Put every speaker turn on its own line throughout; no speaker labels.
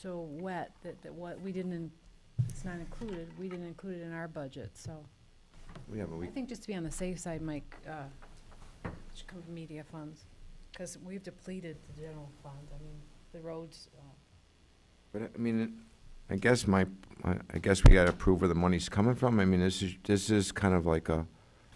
so wet that, that what, we didn't, in- it's not included, we didn't include it in our budget, so.
We have a
I
week.
think just to be on the safe side, Mike, uh, should come from media funds, because we've depleted the general fund, I mean, the roads, uh,
But I mean, it- I guess my, my- I guess we gotta prove where the money's coming from. I mean, this is, this is kind of like a,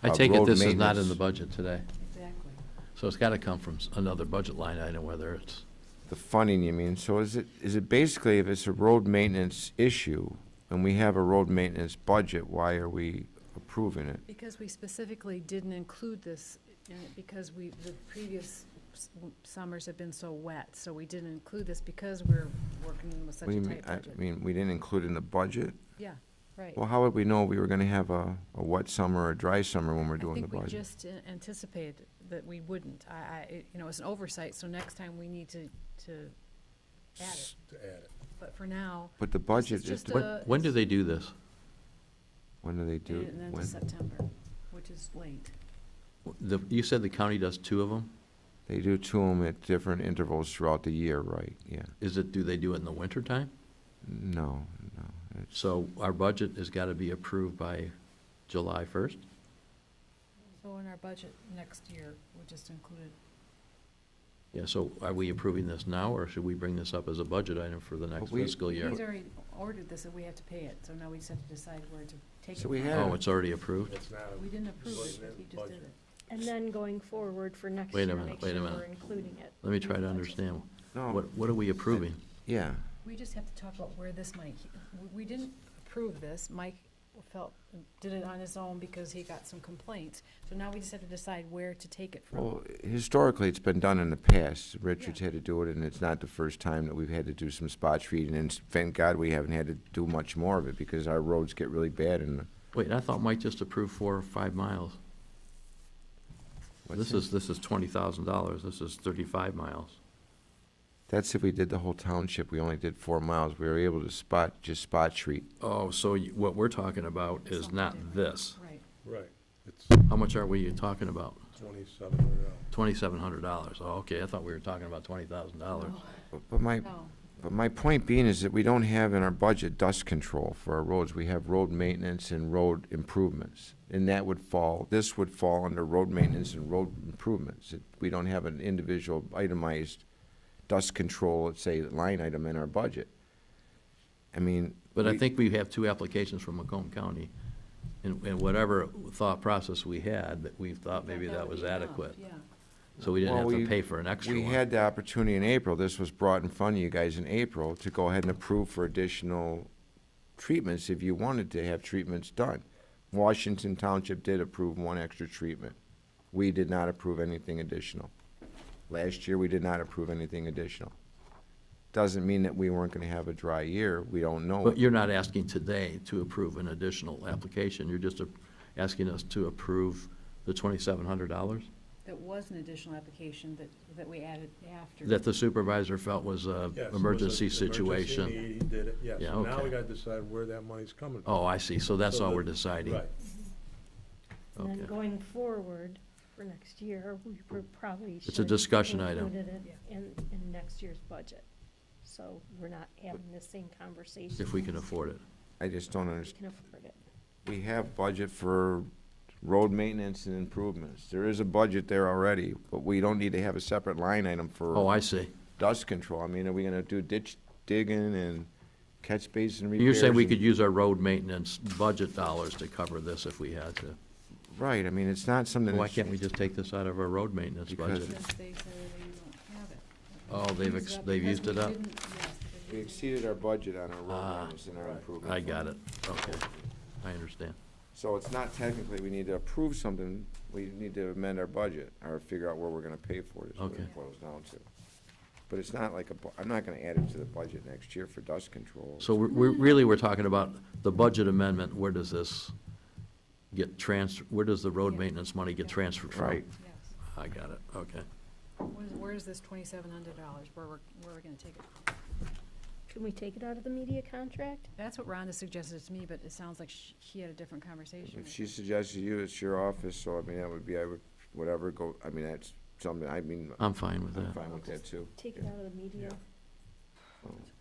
I
Uh,
take it
road
this is not in
maintenance.
the budget today,
exactly.
so it's gotta come from s- another budget line item, whether it's,
the funding, you mean? So is it, is it basically if it's a road maintenance issue and we have a road maintenance budget, why are we approving it?
Because we specifically didn't include this, in it because we, the previous s- summers have been so wet, so we didn't include this because we're working with such
What do
a
you mean?
tight
I
budget.
mean, we didn't include it in the budget?
Yeah, right.
Well, how would we know we were gonna have a, a wet summer or a dry summer when we're
I
doing the
think we
budget?
just a- anticipated that we wouldn't. I, I, it- you know, it's an oversight, so next time we need to, to add it.
to add it.
But for now,
But the budget is,
just
the-
a- Uh,
when, when do
it's-
they do this?
when do they do?
and
it?
then to
When?
September, which is late.
The, you said the county does two of them?
They do to them at different intervals throughout the year, right? Yeah.
Is it, do they do it in the wintertime?
No, no. It's,
So our budget has gotta be approved by July first?
So in our budget next year, we just included,
Yeah, so are we approving this now, or should we bring this up as a budget item for the next
But we-
fiscal year?
he's already ordered this, and we have to pay it, so now we just have to decide where to take it.
So we
from.
had-
Oh, it's already approved?
It's not,
We didn't approve it,
Wasn't in
he just
the
did
budget.
it.
And then going forward for next
Wait a
year,
minute,
make
wait a
sure
minute.
we're including it.
Let me try to understand.
no,
What, what are we approving?
yeah.
We just have to talk about where this money, we- we didn't approve this, Mike felt, did it on his own because he got some complaints. So now we just have to decide where to take it from.
Well, historically, it's been done in the past. Richard's
Yeah.
had to do it, and it's not the first time that we've had to do some spot treating. And thank God we haven't had to do much more of it because our roads get really bad. And
Wait, I thought Mike just approved four or five miles.
what's
This
it?
is, this is twenty thousand dollars, this is thirty-five miles.
that's if we did the whole township. We only did four miles. We were able to spot just spot treat.
Oh, so you- what we're talking about is not this.
Right.
right, it's
How much are we talking about?
twenty-seven or no.
Twenty-seven hundred dollars. Oh, okay, I thought we were talking about twenty thousand dollars.
But- But my
Oh, No,
But my point being is that we don't have in our budget dust control for our roads. We have road maintenance and road improvements. And that would fall, this would fall under road maintenance and road improvements. It- We don't have an individual itemized dust control, let's say, line item in our budget. I mean.
But I
we-
think we have two applications from Macomb County, and, and whatever thought process we had, that we thought maybe that was
would be enough,
adequate.
Yeah.
So we didn't
Well,
have to
we-
pay for an extra
We
one.
had the opportunity in April, this was brought in front of you guys in April, to go ahead and approve for additional treatments if you wanted to have treatments done. Washington Township did approve one extra treatment. We did not approve anything additional. Last year, we did not approve anything additional. Doesn't mean that we weren't gonna have a dry year, we don't know.
But you're not asking today to approve an additional application, you're just a- asking us to approve the twenty-seven hundred dollars?
That was an additional application that, that we added after.
That the supervisor felt was a
Yes, it was an
emergency
emergency
situation?
need, He did it, yes.
Yeah,
So Now
okay.
we gotta decide where that money's coming from.
Oh, I see, so that's
So
all
the-
we're deciding?
Right,
And then
Okay.
going forward for next year, we pr- probably should.
It's a discussion
have
item.
included it In, in next year's budget. So we're not having the same conversation.
If we can afford it.
I just don't
We
understand.
can afford it.
We have budget for road maintenance and improvements. There is a budget there already, but we don't need to have a separate line item for.
Oh, I see.
dust control. I mean, are we gonna do ditch digging and catch basin repairs?
You're saying we could
and-
use our road maintenance budget dollars to cover this if we had to?
Right, I mean, it's not something.
Why
that's-
can't we just take this out of our road maintenance
Because-
budget?
Because they said they don't have it.
Oh, they've ex-
Used up
they've
because
used it
we
up?
didn't- yes, they
We
didn't.
exceeded our budget on our road
Ah,
maintenance and our improvement.
I got it, okay, I understand.
So it's not technically, we need to approve something, we need to amend our budget, or figure out where we're gonna pay for it, is what
Okay.
it boils down to. But it's not like a, bu- I'm not gonna add it to the budget next year for dust control.
So we're, we're- really, we're talking about the budget amendment, where does this get trans, where does the road
Yeah.
maintenance money get
Yeah.
transferred from?
Right.
Yes.
I got it, okay.
Where's, where's this twenty-seven hundred dollars? Where, we're- where are we gonna take it?
Can we take it out of the media contract?
That's what Rhonda suggested to me, but it sounds like sh- he had a different conversation.
If
with-
she suggested you, it's your office, so I mean, that would be, I would, whatever, go, I mean, that's something, I mean,
I'm fine with
I'm
that.
fine with that too.
Take it out of the media?
Yeah.
Oh.